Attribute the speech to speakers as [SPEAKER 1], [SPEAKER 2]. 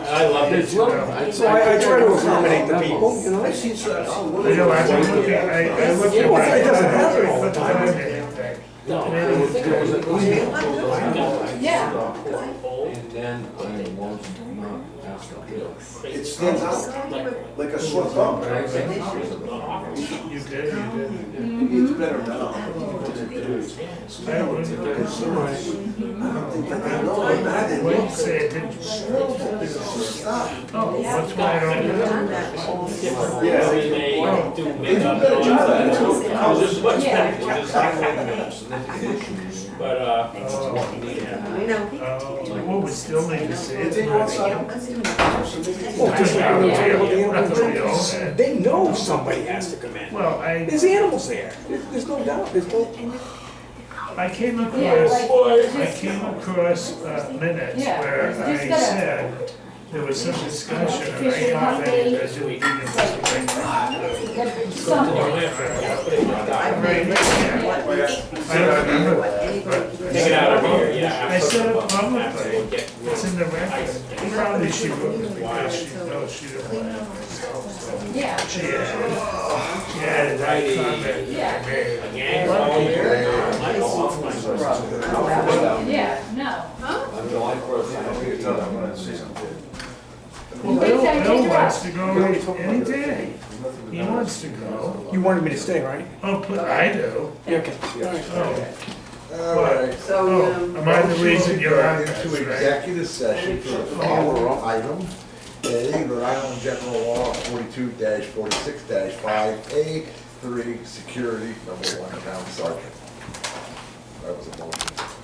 [SPEAKER 1] I love it.
[SPEAKER 2] So I, I try to accommodate the people, you know?
[SPEAKER 3] I've seen stuff.
[SPEAKER 4] I know, I was looking, I, I looked at.
[SPEAKER 2] Well, it doesn't happen all the time.
[SPEAKER 4] I looked at it.
[SPEAKER 5] Yeah.
[SPEAKER 1] Old.
[SPEAKER 3] It stands out like a sore thumb.
[SPEAKER 4] You did, you did.
[SPEAKER 2] Mm-hmm.
[SPEAKER 3] It's better now than it is.
[SPEAKER 4] I don't look at it.
[SPEAKER 3] I don't think that I know, I'm not in
[SPEAKER 4] What you
[SPEAKER 3] love.
[SPEAKER 4] say, it didn't.
[SPEAKER 3] Stop.
[SPEAKER 4] Oh, that's why I don't.
[SPEAKER 1] Different.
[SPEAKER 3] Yeah.
[SPEAKER 1] They may do
[SPEAKER 3] They do
[SPEAKER 1] makeup and
[SPEAKER 3] better
[SPEAKER 1] all
[SPEAKER 3] job
[SPEAKER 1] that.
[SPEAKER 3] at it too.
[SPEAKER 1] Oh, this is much
[SPEAKER 5] Yeah.
[SPEAKER 1] better, this is different. But, uh,
[SPEAKER 4] Oh, yeah. Oh, what we still need to see.
[SPEAKER 3] They
[SPEAKER 4] is
[SPEAKER 3] take
[SPEAKER 4] my-
[SPEAKER 3] one side.
[SPEAKER 2] Well, just like when we were talking about the animal control,
[SPEAKER 4] Yeah.
[SPEAKER 2] they know somebody has to come in.
[SPEAKER 4] Well, I,
[SPEAKER 2] There's animals there, there's, there's no doubt, there's no,
[SPEAKER 4] I came
[SPEAKER 5] Yeah,
[SPEAKER 4] across.
[SPEAKER 5] like,
[SPEAKER 4] I
[SPEAKER 5] just-
[SPEAKER 4] came across uh, minutes
[SPEAKER 5] Yeah,
[SPEAKER 4] where
[SPEAKER 5] it's
[SPEAKER 4] I
[SPEAKER 5] just gotta-
[SPEAKER 4] said, there was some discussion, and I
[SPEAKER 5] Fishing
[SPEAKER 4] thought that
[SPEAKER 5] company.
[SPEAKER 4] it was doing it.
[SPEAKER 5] like something.
[SPEAKER 4] Right, yeah. I don't remember, but
[SPEAKER 1] take it out of here, yeah.
[SPEAKER 4] I said it
[SPEAKER 1] absolutely. Absolutely.
[SPEAKER 4] publicly,
[SPEAKER 1] Get rid
[SPEAKER 4] it's
[SPEAKER 1] of
[SPEAKER 4] in the record. Probably she wrote it because she knows she didn't want it herself, so.
[SPEAKER 5] Yeah.
[SPEAKER 4] She added, she added that comment that I made.
[SPEAKER 1] the gang, all here. I go off my-
[SPEAKER 5] Yeah, no.
[SPEAKER 4] Well,
[SPEAKER 5] Wait,
[SPEAKER 4] Bill,
[SPEAKER 5] can I
[SPEAKER 4] Bill
[SPEAKER 5] interrupt?
[SPEAKER 4] wants to go any day. He wants to go.
[SPEAKER 2] you wanted me to stay, right?
[SPEAKER 4] Oh, but I do.
[SPEAKER 2] Yeah, okay, all right.
[SPEAKER 4] Oh,
[SPEAKER 3] All right.
[SPEAKER 6] So,
[SPEAKER 4] oh,
[SPEAKER 6] um,
[SPEAKER 4] am I the reason you're on
[SPEAKER 3] Into
[SPEAKER 4] this, right?
[SPEAKER 3] executive session for the follow-up item, A, Rhode Island General Law forty-two forty-six five A three, security, number one, town sergeant. That was a motion.